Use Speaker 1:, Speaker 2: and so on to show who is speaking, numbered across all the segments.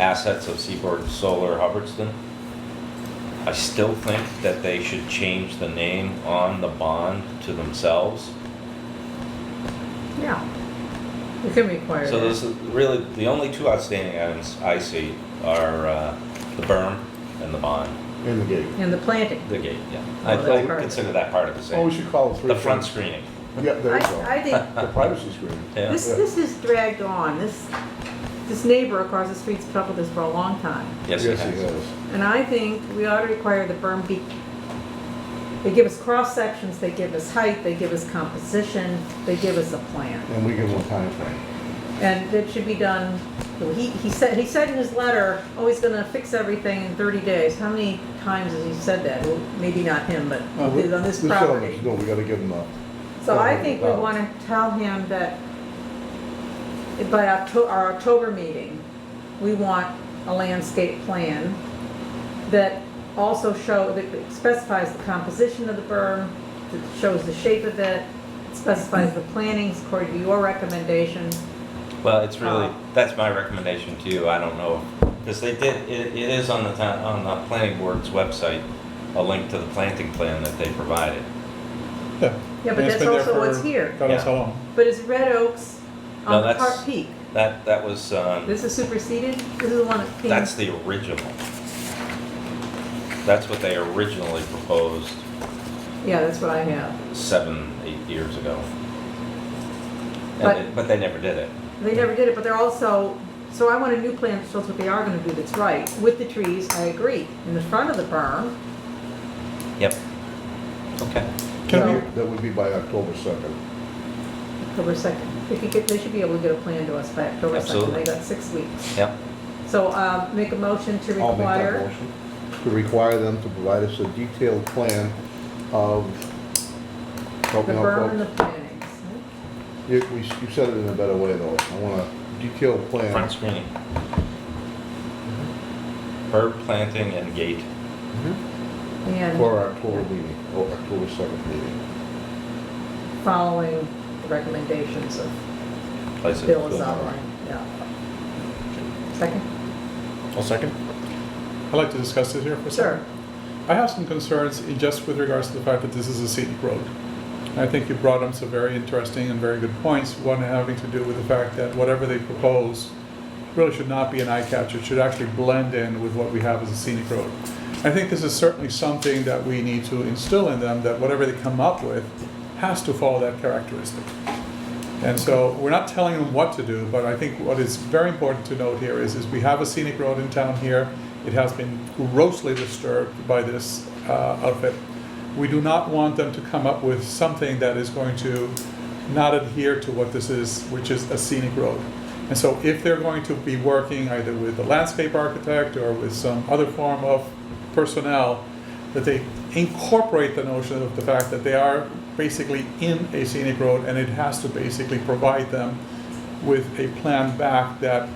Speaker 1: assets of Seaboard Solar Hubbardston. I still think that they should change the name on the bond to themselves.
Speaker 2: Yeah. We can require
Speaker 1: So those
Speaker 2: that.
Speaker 1: are really, the only two outstanding items I see are uh, the berm and the bond,
Speaker 3: in the gate.
Speaker 2: And the planting.
Speaker 1: the gate, yeah.
Speaker 2: Oh,
Speaker 1: I I
Speaker 2: that's part
Speaker 1: would
Speaker 2: of it.
Speaker 1: consider that part of the
Speaker 3: Oh, we
Speaker 1: same.
Speaker 3: should call it three.
Speaker 1: The front
Speaker 3: things.
Speaker 1: screening,
Speaker 3: Yeah, there you
Speaker 2: I,
Speaker 3: go.
Speaker 2: I think
Speaker 3: The privacy screen.
Speaker 1: yeah.
Speaker 2: this, this is dragged on. This, this neighbor across the street's been up with this for a long time.
Speaker 1: Yes, it has.
Speaker 2: And I think we ought to require the berm be, they give us cross sections, they give us height, they give us composition, they give us a plan.
Speaker 3: And we give them a timeframe.
Speaker 2: And it should be done, he, he said, he said in his letter, oh, he's gonna fix everything in thirty days. How many times has he said that? Well, maybe not him, but
Speaker 3: No,
Speaker 2: on this
Speaker 3: Uh, we tell them,
Speaker 2: property.
Speaker 3: No, we gotta give them a.
Speaker 2: So I think we wanna tell him that by Octo, our October meeting, we want a landscape plan that also show, that specifies the composition of the berm, that shows the shape of it, specifies the plantings according to your recommendations.
Speaker 1: Well, it's really,
Speaker 2: Uh,
Speaker 1: that's my recommendation to you, I don't know, because they did, it, it is on the town, on the planning board's website, a link to the planting plan that they provided.
Speaker 4: Yeah,
Speaker 2: Yeah, but
Speaker 4: And it's
Speaker 2: that's
Speaker 4: been there
Speaker 2: also what's
Speaker 4: for
Speaker 2: here.
Speaker 4: God knows
Speaker 1: Yeah.
Speaker 4: how long.
Speaker 2: But is Red Oaks
Speaker 1: No,
Speaker 2: on the
Speaker 1: that's-
Speaker 2: Park Peak?
Speaker 1: That, that was, um,
Speaker 2: This is superseded? This is the one that came?
Speaker 1: that's the original. That's what they originally proposed
Speaker 2: Yeah, that's what I have.
Speaker 1: seven, eight years ago.
Speaker 2: But-
Speaker 1: And they- But they never did it.
Speaker 2: They never did it, but they're also, so I want a new plan that shows what they are gonna do that's right. With the trees, I agree. In the front of the berm,
Speaker 1: Yep. Okay.
Speaker 4: Can
Speaker 2: No.
Speaker 4: we,
Speaker 3: That would be by October second.
Speaker 2: October second. They could get, they should be able to get a plan to us by October second.
Speaker 1: Absolutely.
Speaker 2: They got six weeks.
Speaker 1: Yep.
Speaker 2: So, um, make a motion to
Speaker 3: I'll make that
Speaker 2: require,
Speaker 3: motion. To require them to provide us a detailed plan of.
Speaker 2: the
Speaker 3: help me out,
Speaker 2: berm and the
Speaker 3: folks.
Speaker 2: plantings.
Speaker 3: You, we- you said it in a better way though. I want a detailed
Speaker 1: Front
Speaker 3: plan.
Speaker 1: screening. Herb planting and gate.
Speaker 2: Mm-hmm. And
Speaker 3: For our October meeting, or October second meeting.
Speaker 2: following the recommendations of
Speaker 1: places.
Speaker 2: Bill is
Speaker 3: Bill.
Speaker 2: outlined, yeah. Second?
Speaker 4: I'll second. I'd like to discuss this here for a
Speaker 2: Sure.
Speaker 4: second. I have some concerns in just with regards to the fact that this is a scenic road. And I think you brought up some very interesting and very good points, one having to do with the fact that whatever they propose really should not be an eye catch, it should actually blend in with what we have as a scenic road. I think this is certainly something that we need to instill in them, that whatever they come up with has to follow that characteristic. And so we're not telling them what to do, but I think what is very important to note here is, is we have a scenic road in town here. It has been grossly disturbed by this uh, outfit. We do not want them to come up with something that is going to not adhere to what this is, which is a scenic road. And so if they're going to be working either with a landscape architect or with some other form of personnel, that they incorporate the notion of the fact that they are basically in a scenic road and it has to basically provide them with a plan back that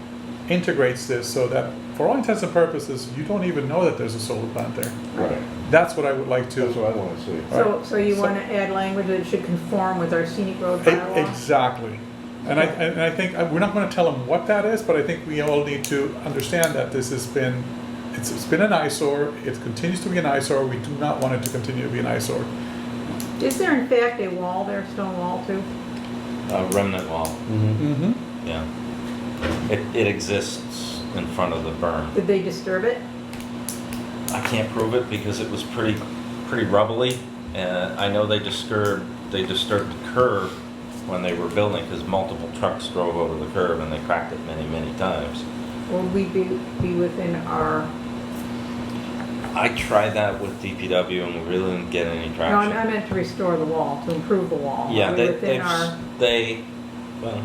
Speaker 4: integrates this so that for all intents and purposes, you don't even know that there's a solar plant there.
Speaker 3: Right.
Speaker 4: That's what I would like
Speaker 3: That's
Speaker 4: to.
Speaker 3: what I wanna see.
Speaker 2: So,
Speaker 4: Right.
Speaker 2: so you
Speaker 4: So-
Speaker 2: want to add language that should conform with our scenic road
Speaker 4: E-
Speaker 2: bylaw?
Speaker 4: Exactly. And I, and I think, uh, we're not gonna tell them what that is, but I think we all need to understand that this has been, it's, it's been an eyesore, it continues to be an eyesore, we do not want it to continue to be an eyesore.
Speaker 2: Is there in fact a wall there, stone wall too?
Speaker 1: A remnant wall,
Speaker 4: Mm-hmm.
Speaker 1: yeah. It, it exists in front of the berm.
Speaker 2: Did they disturb it?
Speaker 1: I can't prove it because it was pretty, pretty rubbly. And I know they disturbed, they disturbed the curb when they were building because multiple trucks drove over the curb and they cracked it many, many times.
Speaker 2: Will we be, be within our,
Speaker 1: I tried that with DPW and we really didn't get any
Speaker 2: no,
Speaker 1: traction.
Speaker 2: I meant to restore the wall, to improve the wall.
Speaker 1: Yeah,
Speaker 2: Are we
Speaker 1: they,
Speaker 2: Within
Speaker 1: they've,
Speaker 2: our,
Speaker 1: s- they, well,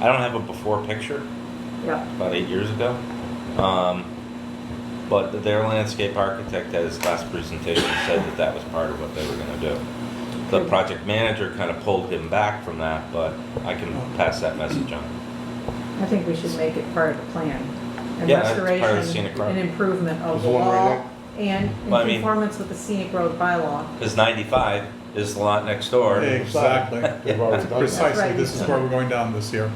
Speaker 1: I don't have a before picture,
Speaker 2: yeah,
Speaker 1: about eight years ago. Um, but their landscape architect at his last presentation said that that was part of what they were gonna do. The project manager kind of pulled him back from that, but I can pass that message on.
Speaker 2: I think we should make it part of the plan. And
Speaker 1: Yeah, it's part of the
Speaker 2: restoration
Speaker 1: scenic road.
Speaker 2: And improvement of
Speaker 3: There's
Speaker 2: the
Speaker 3: one right
Speaker 2: wall and in
Speaker 1: Well, I mean-
Speaker 2: conformance with the scenic road bylaw.
Speaker 1: Because ninety-five is the lot next door.
Speaker 4: Exactly.
Speaker 3: They've already done that.
Speaker 4: Precisely, this is where we're going down this year.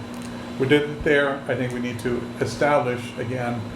Speaker 4: We did it there, I think we need to establish again